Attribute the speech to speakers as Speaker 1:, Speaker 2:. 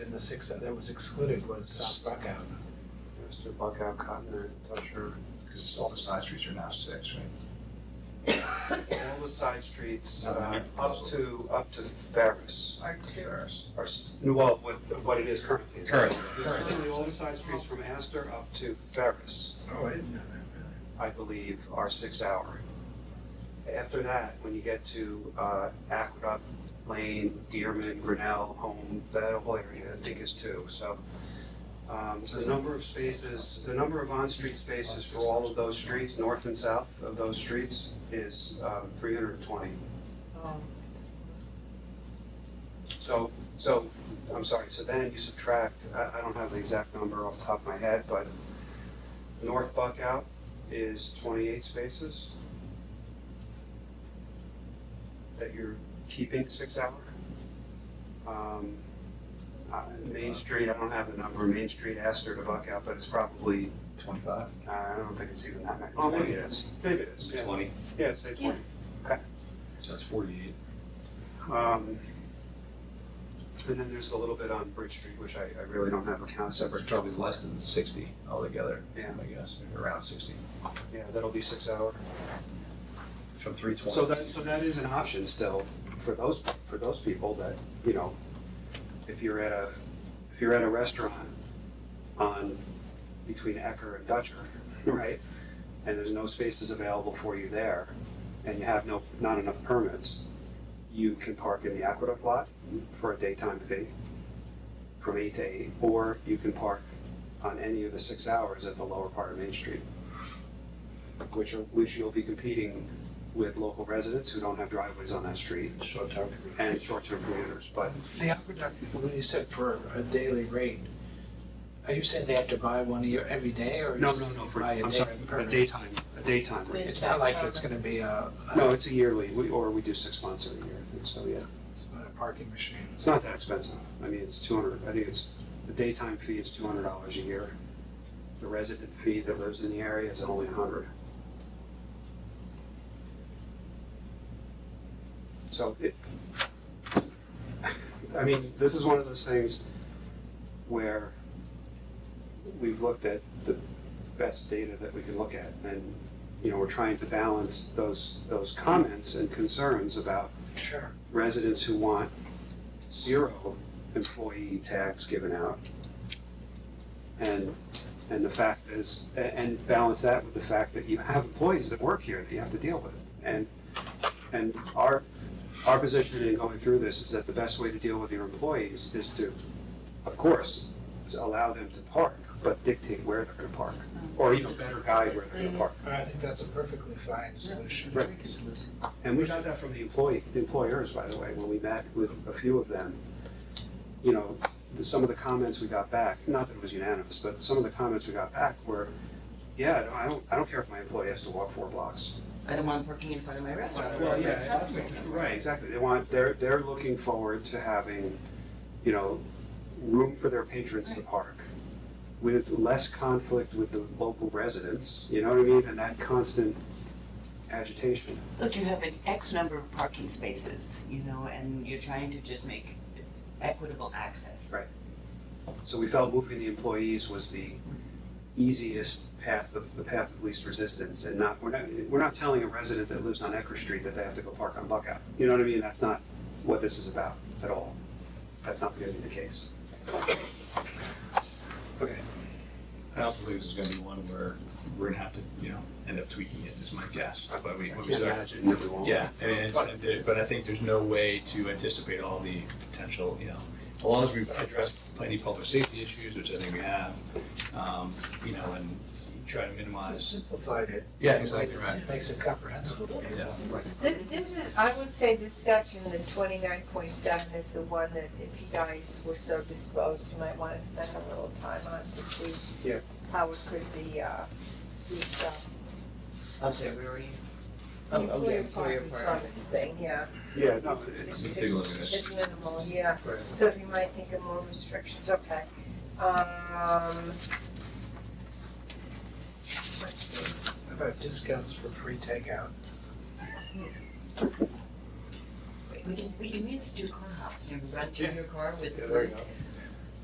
Speaker 1: in the six uh, that that was excluded was South Buckout.
Speaker 2: Mr. Buckout, Cotton, Dutcher, because all the side streets are now six, right?
Speaker 3: all the side streets,
Speaker 2: Not a
Speaker 3: uh,
Speaker 2: big
Speaker 3: up
Speaker 2: proposal.
Speaker 3: to, up to Ferris,
Speaker 2: I can see ours.
Speaker 3: are, s- well, what, what it is currently.
Speaker 4: Currently.
Speaker 3: Currently, all the side streets from Astor up to Ferris,
Speaker 1: Oh, I didn't know that.
Speaker 3: I believe, are six hour. After that, when you get to, uh, Aqueduct Lane, Dearman, Grinnell, Home, that whole area, I think is two, so. Um, the number of spaces, the number of on-street spaces for all of those streets, north and south of those streets, is, uh, three hundred and twenty. So, so, I'm sorry, so then you subtract, I, I don't have the exact number off the top of my head, but North Buckout is twenty-eight spaces that you're keeping six hour. Um, uh, Main Street, I don't have the number, Main Street, Astor to Buckout, but it's probably,
Speaker 2: Twenty-five?
Speaker 3: uh, I don't think it's even that many.
Speaker 2: Oh,
Speaker 3: Maybe it is. Maybe it is, yeah.
Speaker 4: Twenty.
Speaker 3: Yeah, say twenty.
Speaker 2: So that's forty-eight.
Speaker 3: Um, And then there's a little bit on Bridge Street, which I, I really don't have a count
Speaker 2: Separate,
Speaker 3: separate.
Speaker 2: probably less than sixty altogether,
Speaker 3: Yeah.
Speaker 2: I guess, around sixty,
Speaker 3: Yeah, that'll be six hour.
Speaker 2: from three twenty.
Speaker 3: So that, so that is an option still for those, for those people that, you know, if you're at a, if you're at a restaurant on, between Ecker and Dutcher, right? And there's no spaces available for you there, and you have no, not enough permits, you can park in the Aqueduct lot for a daytime fee from eight to eight, or you can park on any of the six hours at the lower part of Main Street, which, are- which you'll be competing with local residents who don't have driveways on that street
Speaker 1: Short term.
Speaker 3: and short-term commuters, but
Speaker 1: The aqueduct, when you said for a daily rate, are you saying they have to buy one a year every day or?
Speaker 3: no,
Speaker 1: is-
Speaker 3: no, no, for,
Speaker 1: Buy a
Speaker 3: I'm
Speaker 1: day
Speaker 3: sorry, a
Speaker 1: permit?
Speaker 3: daytime, a daytime rate.
Speaker 1: It's not like it's gonna be a, a-
Speaker 3: No, it's a yearly, we, or we do six months every year, I think, so, yeah.
Speaker 1: it's not a parking machine.
Speaker 3: It's not that expensive. I mean, it's two hundred, I think it's, the daytime fee is two hundred dollars a year. The resident fee that lives in the area is only a hundred. So it, I mean, this is one of those things where we've looked at the best data that we can look at. And, you know, we're trying to balance those, those comments and concerns about
Speaker 1: Sure.
Speaker 3: residents who want zero employee tax given out. And, and the fact is, a- and balance that with the fact that you have employees that work here that you have to deal with. And, and our, our position in going through this is that the best way to deal with your employees is to, of course, is allow them to park, but dictate where they're gonna park, or even better guide where they're gonna park.
Speaker 1: I think that's a perfectly fine solution.
Speaker 3: Right. And we got that from the employee, employers, by the way, when we met with a few of them. You know, the, some of the comments we got back, not that it was unanimous, but some of the comments we got back were, yeah, I don't, I don't care if my employee has to walk four blocks.
Speaker 5: I don't want parking in front of my restaurant. That's right.
Speaker 3: Right, exactly. They want, they're, they're looking forward to having, you know, room for their patrons to park with less conflict with the local residents, you know what I mean? And that constant agitation.
Speaker 5: Look, you have an X number of parking spaces, you know, and you're trying to just make equitable access.
Speaker 3: Right. So we felt moving the employees was the easiest path, of the path of least resistance, and not, we're not, we're not telling a resident that lives on Ecker Street that they have to go park on Buckout. You know what I mean? That's not what this is about at all. That's not gonna be the case. Okay,
Speaker 4: I also think this is gonna be one where we're gonna have to, you know, end up tweaking it, is my guess. But we,
Speaker 3: I
Speaker 4: when
Speaker 3: can't
Speaker 4: we start-
Speaker 3: imagine that we won't.
Speaker 4: yeah, I mean, it's, there- but I think there's no way to anticipate all the potential, you know, as long as we've addressed plenty of public safety issues, which I think we have, um, you know, and try to minimize.
Speaker 1: Simplified it.
Speaker 4: Yeah, exactly right.
Speaker 1: Makes it comprehensible.
Speaker 4: Yeah.
Speaker 6: This, this is, I would say this section, the twenty-nine point seven is the one that if you guys were so disposed, you might wanna spend a little time on to see
Speaker 3: Yeah.
Speaker 6: how it could be, uh, the, uh,
Speaker 5: I'm sorry, where were you? Oh, oh, yeah,
Speaker 6: employer
Speaker 5: employer
Speaker 6: parking
Speaker 5: parking.
Speaker 6: permits thing, yeah.
Speaker 3: Yeah, no,
Speaker 4: Let's
Speaker 3: it's,
Speaker 4: take a look at it.
Speaker 6: It's minimal, yeah,
Speaker 3: Right.
Speaker 6: so if you might think of more restrictions, okay. Um, let's see,
Speaker 1: How about discounts for free takeout?
Speaker 5: Wait, We can, we can use do car hops, you run to
Speaker 1: Yeah.
Speaker 5: your car with.
Speaker 3: yeah, there you go.